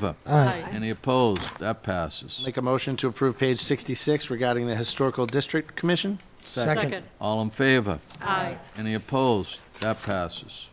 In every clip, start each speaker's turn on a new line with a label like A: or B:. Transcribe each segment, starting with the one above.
A: favor?
B: Aye.
A: Any opposed? That passes.
C: Make a motion to approve page 66 regarding the Historical District Commission.
B: Second.
A: All in favor?
B: Aye.
A: Any opposed? That passes.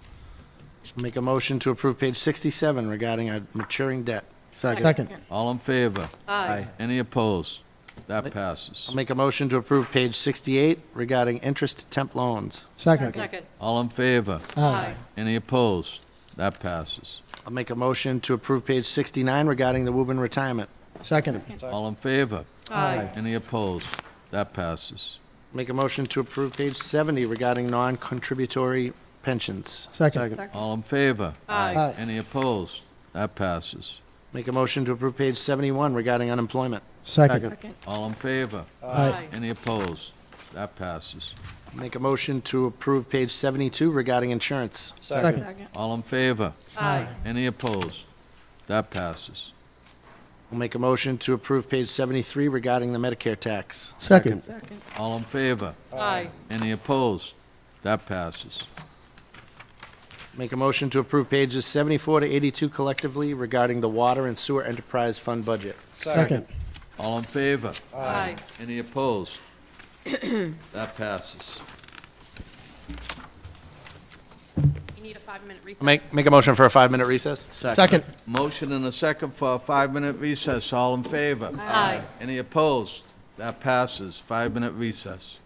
C: Make a motion to approve page 67 regarding our maturing debt.
B: Second.
A: All in favor?
B: Aye.
A: Any opposed? That passes.
C: I'll Make a motion to approve page 68 regarding interest temp loans.
D: Second.
A: All in favor?
B: Aye.
A: Any opposed? That passes.
C: I'll make a motion to approve page 69 regarding the Woburn retirement.
D: Second.
A: All in favor?
B: Aye.
A: Any opposed? That passes.
C: Make a motion to approve page 70 regarding non-contributory pensions.
D: Second.
A: All in favor?
B: Aye.
A: Any opposed? That passes.
C: Make a motion to approve page 71 regarding unemployment.
D: Second.
A: All in favor?
D: Aye.
A: Any opposed? That passes.
C: Make a motion to approve page 72 regarding insurance.
D: Second.
A: All in favor?
B: Aye.
A: Any opposed? That passes.
C: I'll make a motion to approve page 73 regarding the Medicare tax.
D: Second.
B: Second.
A: All in favor?
B: Aye.
A: Any opposed? That passes.
C: Make a motion to approve pages 74 to 82 collectively regarding the water and sewer enterprise fund budget.
D: Second.
A: All in favor?
B: Aye.
A: Any opposed? That passes.
E: You need a five-minute recess.
C: Make, make a motion for a five-minute recess?
D: Second.
A: Motion and a second for a five-minute recess. All in favor?
B: Aye.
A: Any opposed? That passes. Five-minute recess.